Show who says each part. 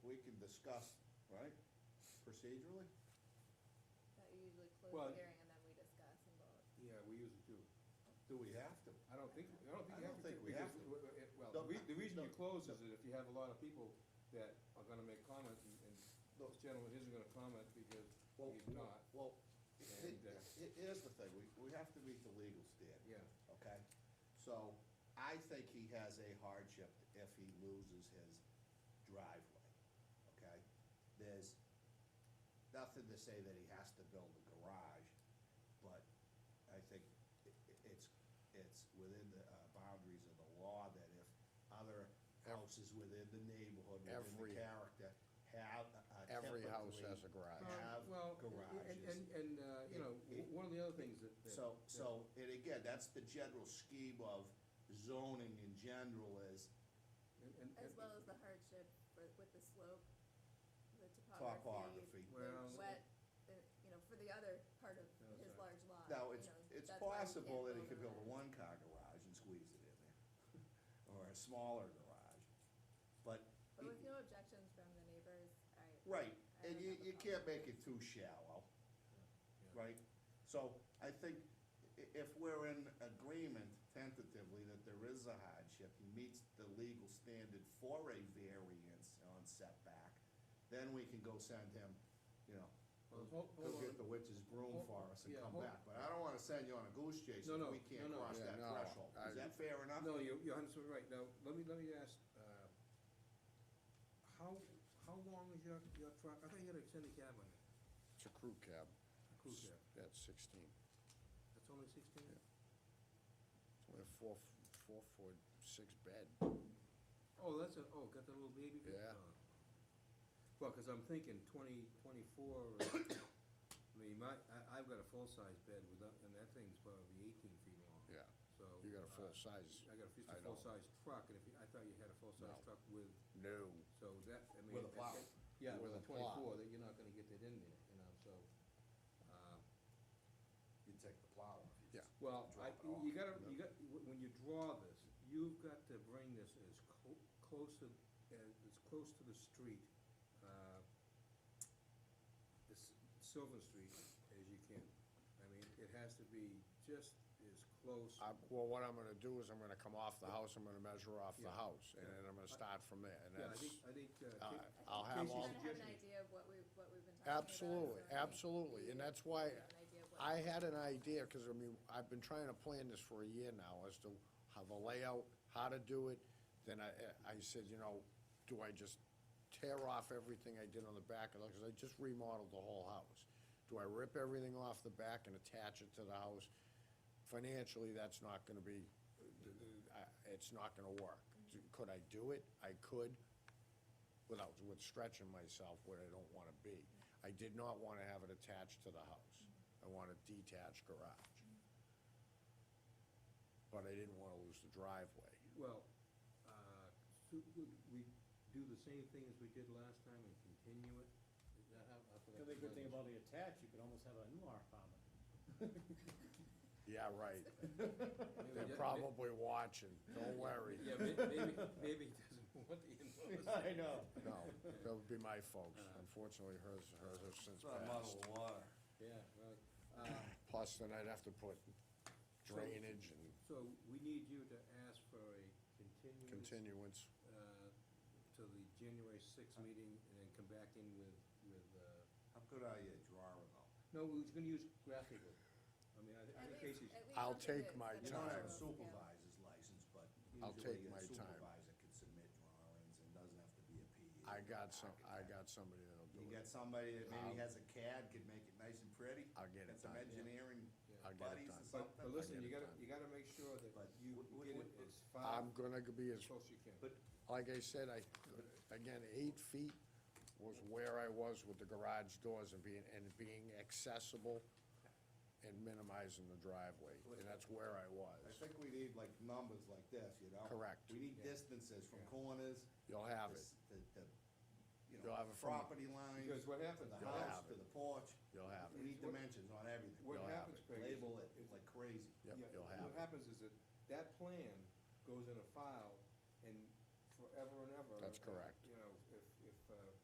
Speaker 1: discuss, right, procedurally?
Speaker 2: That you usually
Speaker 3: Well-
Speaker 2: close the hearing and then we discuss and vote.
Speaker 3: Yeah, we usually do.
Speaker 1: Do we have to?
Speaker 3: I don't think, I don't think
Speaker 1: I don't
Speaker 3: you have to.
Speaker 1: think
Speaker 3: do-
Speaker 1: we have
Speaker 3: because
Speaker 1: to.
Speaker 3: w- w- it- Well, the
Speaker 1: Don't-
Speaker 3: re- the reason you
Speaker 1: don't-
Speaker 3: close is that if you have a lot of people that are gonna make comments, and, and
Speaker 1: Don't-
Speaker 3: this gentleman isn't gonna comment because
Speaker 1: Well,
Speaker 3: he's not,
Speaker 1: Well, it,
Speaker 3: And, uh,
Speaker 1: it is the thing, we, we have to meet the legal standard,
Speaker 3: yeah.
Speaker 1: okay? So I think he has a hardship if he loses his driveway, okay? There's nothing to say that he has to build a garage, but I think i- i- it's, it's within the uh, boundaries of the law that if other houses within the neighborhood, within
Speaker 4: Every-
Speaker 1: the character, have uh,
Speaker 4: Every house
Speaker 1: typically-
Speaker 4: has a garage.
Speaker 1: Well, have
Speaker 3: Well, and,
Speaker 1: garages.
Speaker 3: and, and, uh, you know,
Speaker 1: It- it-
Speaker 3: one of the other things that. that-
Speaker 1: So,
Speaker 3: that-
Speaker 1: so, and again, that's the general scheme of zoning in general is
Speaker 3: and- and-
Speaker 2: As
Speaker 3: and-
Speaker 2: well as the hardship for, with the slope, the topography,
Speaker 1: topography.
Speaker 3: Well-
Speaker 2: the wet, the, you know, for the other part of
Speaker 3: No,
Speaker 2: his
Speaker 3: sorry.
Speaker 2: large lot.
Speaker 1: Now,
Speaker 2: you
Speaker 1: it's,
Speaker 2: know,
Speaker 1: it's
Speaker 2: that's why he
Speaker 1: possible
Speaker 2: can't
Speaker 1: that he could build a
Speaker 2: on
Speaker 1: one-car garage and squeeze it in there, or a smaller garage, but.
Speaker 2: But with no objections from the neighbors, I.
Speaker 1: Right,
Speaker 2: I
Speaker 1: and
Speaker 2: don't
Speaker 1: you,
Speaker 2: have a
Speaker 1: you
Speaker 2: problem.
Speaker 1: can't make it too shallow,
Speaker 3: yeah.
Speaker 1: right? So I think i- if we're in agreement tentatively that there is a hardship, he meets the legal standard for a variance on setback, then we can go send him, you know,
Speaker 3: Well, hold-
Speaker 1: go
Speaker 3: hold
Speaker 1: get
Speaker 3: on.
Speaker 1: the witch's broom
Speaker 3: Hold-
Speaker 1: for us and
Speaker 3: yeah,
Speaker 1: come
Speaker 3: hold-
Speaker 1: back. But I don't wanna send you on a goose chase
Speaker 3: No,
Speaker 1: if
Speaker 3: no,
Speaker 1: we
Speaker 3: no,
Speaker 1: can't
Speaker 3: no,
Speaker 1: cross
Speaker 4: yeah,
Speaker 1: that
Speaker 4: no,
Speaker 1: threshold. Is
Speaker 4: I-
Speaker 1: that fair enough?
Speaker 3: No, you're, you're hundred percent right. Now, let me, let me ask, uh, how, how long is your, your truck? I thought you had an extended cab on it,
Speaker 4: It's a crew cab.
Speaker 3: a crew cab.
Speaker 4: That's sixteen.
Speaker 3: That's only sixteen?
Speaker 4: Yeah. It's only a four, four foot, six bed.
Speaker 3: Oh, that's a, oh, got the little baby? bit?
Speaker 4: Yeah.
Speaker 3: Oh. Well, because I'm thinking twenty, twenty-four, I mean, my, I, I've got a full-size bed with, that- and that thing's probably eighteen feet long.
Speaker 4: Yeah,
Speaker 3: So.
Speaker 4: you got
Speaker 3: uh,
Speaker 4: a full size.
Speaker 3: I got a, it's a
Speaker 4: I know.
Speaker 3: full-size truck, and if, you- I thought you had a full-size
Speaker 4: No.
Speaker 3: truck with,
Speaker 4: No,
Speaker 3: so that, I mean.
Speaker 1: With a
Speaker 3: that-
Speaker 1: plow.
Speaker 3: that- Yeah,
Speaker 4: With
Speaker 3: with a
Speaker 4: a plow.
Speaker 3: twenty-four, that you're not gonna get that in there, you know, so, uh,
Speaker 1: You take the plow.
Speaker 4: yeah,
Speaker 3: well, I,
Speaker 1: Drop it off.
Speaker 3: you gotta, you
Speaker 4: Yep.
Speaker 3: got, wh- when you draw this, you've got to bring this as clo- close to, as, as close to the street, uh, this Sylvan Street as you can. I mean, it has to be just as close.
Speaker 4: I, well, what I'm gonna do is I'm gonna come off the house, I'm gonna measure off the
Speaker 3: Yeah.
Speaker 4: house, and
Speaker 3: Yeah.
Speaker 4: then I'm gonna start from there, and
Speaker 3: Yeah, I think,
Speaker 4: that's,
Speaker 3: I think, uh.
Speaker 4: uh,
Speaker 3: Ca-
Speaker 4: I'll
Speaker 2: I
Speaker 4: have
Speaker 2: think you kinda have
Speaker 3: Casey's
Speaker 4: all.
Speaker 2: an
Speaker 3: suggestion-
Speaker 2: idea of what we, what we've been talking about. so
Speaker 4: Absolutely,
Speaker 2: I think
Speaker 4: absolutely, and
Speaker 2: you
Speaker 4: that's why
Speaker 2: have an idea of what-
Speaker 4: I had an idea, because I mean, I've been trying to plan this for a year now, as to how the layout, how to do it. Then I, I said, you know, do I just tear off everything I did on the back of the, because I just remodeled the whole house. Do I rip everything off the back and attach it to the house? Financially, that's not gonna be, I- it's not gonna work. Could I do it? I could, without, with stretching myself where I don't wanna be. I did not wanna have it attached to the house. I want a detached garage. But I didn't wanna lose the driveway.
Speaker 3: Well, uh, so would we do the same thing as we did last time and continue it? Is that how, I forgot.
Speaker 5: The other good thing about the attached, you could almost have a Newar apartment.
Speaker 4: Yeah, right.
Speaker 3: Maybe
Speaker 4: They're
Speaker 3: that-
Speaker 4: probably watching, don't worry.
Speaker 3: Yeah, may- maybe, maybe he doesn't want the in-laws.
Speaker 5: I know.
Speaker 4: No, that would be my folks. Unfortunately, hers, hers have since
Speaker 1: Uh-huh. It's not a
Speaker 4: passed.
Speaker 1: muddle of water.
Speaker 3: Yeah, well, uh,
Speaker 4: Plus, then I'd have to put drainage and
Speaker 3: so we need you to ask for a continuance.
Speaker 4: continuance.
Speaker 3: Uh, to the January sixth
Speaker 4: Uh.
Speaker 3: meeting and then come back in with, with, uh,
Speaker 1: How good are you at drawing though?
Speaker 3: no, we're just gonna use graphical. I mean, I thi- I
Speaker 2: At least-
Speaker 3: think Casey's.
Speaker 2: at least
Speaker 4: I'll
Speaker 2: something that-
Speaker 4: take my
Speaker 2: that
Speaker 1: You
Speaker 2: is
Speaker 1: don't
Speaker 4: time.
Speaker 1: have a
Speaker 2: doable.
Speaker 1: supervisor's license, but
Speaker 4: I'll
Speaker 1: usually
Speaker 4: take
Speaker 1: a
Speaker 4: my time.
Speaker 1: supervisor can submit drawings and doesn't have to be a E PE.
Speaker 4: I got some, I got somebody that'll
Speaker 1: You
Speaker 4: do
Speaker 1: got
Speaker 4: it.
Speaker 1: somebody that
Speaker 4: I'll-
Speaker 1: maybe has a CAD, could make it nice and pretty?
Speaker 4: I'll get it
Speaker 1: Got some
Speaker 4: done.
Speaker 1: engineering
Speaker 3: Yeah.
Speaker 4: I'll get it
Speaker 1: buddies
Speaker 4: done.
Speaker 1: and
Speaker 3: But, but
Speaker 1: something?
Speaker 3: listen,
Speaker 4: get
Speaker 3: you
Speaker 4: it
Speaker 3: gotta,
Speaker 4: done.
Speaker 3: you gotta make sure that
Speaker 1: But
Speaker 3: you
Speaker 1: wh- wh-
Speaker 3: get it
Speaker 1: wh-
Speaker 3: as far
Speaker 4: I'm gonna be as
Speaker 3: as close you can.
Speaker 1: But
Speaker 4: like I said, I, again, eight feet was where I was with the garage doors and being, and being accessible and minimizing the driveway, and that's where I
Speaker 1: I
Speaker 4: was.
Speaker 1: think we need like numbers like this, you know?
Speaker 4: Correct.
Speaker 1: We need
Speaker 3: Yeah.
Speaker 1: distances from
Speaker 3: Yeah.
Speaker 1: corners.
Speaker 4: You'll have
Speaker 1: to
Speaker 4: it,
Speaker 1: s- to- to, you
Speaker 4: You'll
Speaker 1: know,
Speaker 4: have it from-
Speaker 1: property lines.
Speaker 3: Because what
Speaker 1: To
Speaker 3: happens,
Speaker 1: the
Speaker 4: You'll
Speaker 1: house,
Speaker 4: have
Speaker 1: to
Speaker 4: it.
Speaker 1: the porch.
Speaker 4: you'll have
Speaker 1: We
Speaker 4: it,
Speaker 1: need
Speaker 3: What-
Speaker 1: dimensions on everything.
Speaker 3: what
Speaker 4: You'll have
Speaker 3: happens,
Speaker 4: it.
Speaker 3: Craig. is-
Speaker 1: Label it
Speaker 3: is-
Speaker 1: like crazy.
Speaker 4: yep,
Speaker 3: yeah,
Speaker 4: you'll have
Speaker 3: What
Speaker 4: it,
Speaker 3: happens is that that plan goes in a file and forever and ever.
Speaker 4: That's correct.
Speaker 3: uh,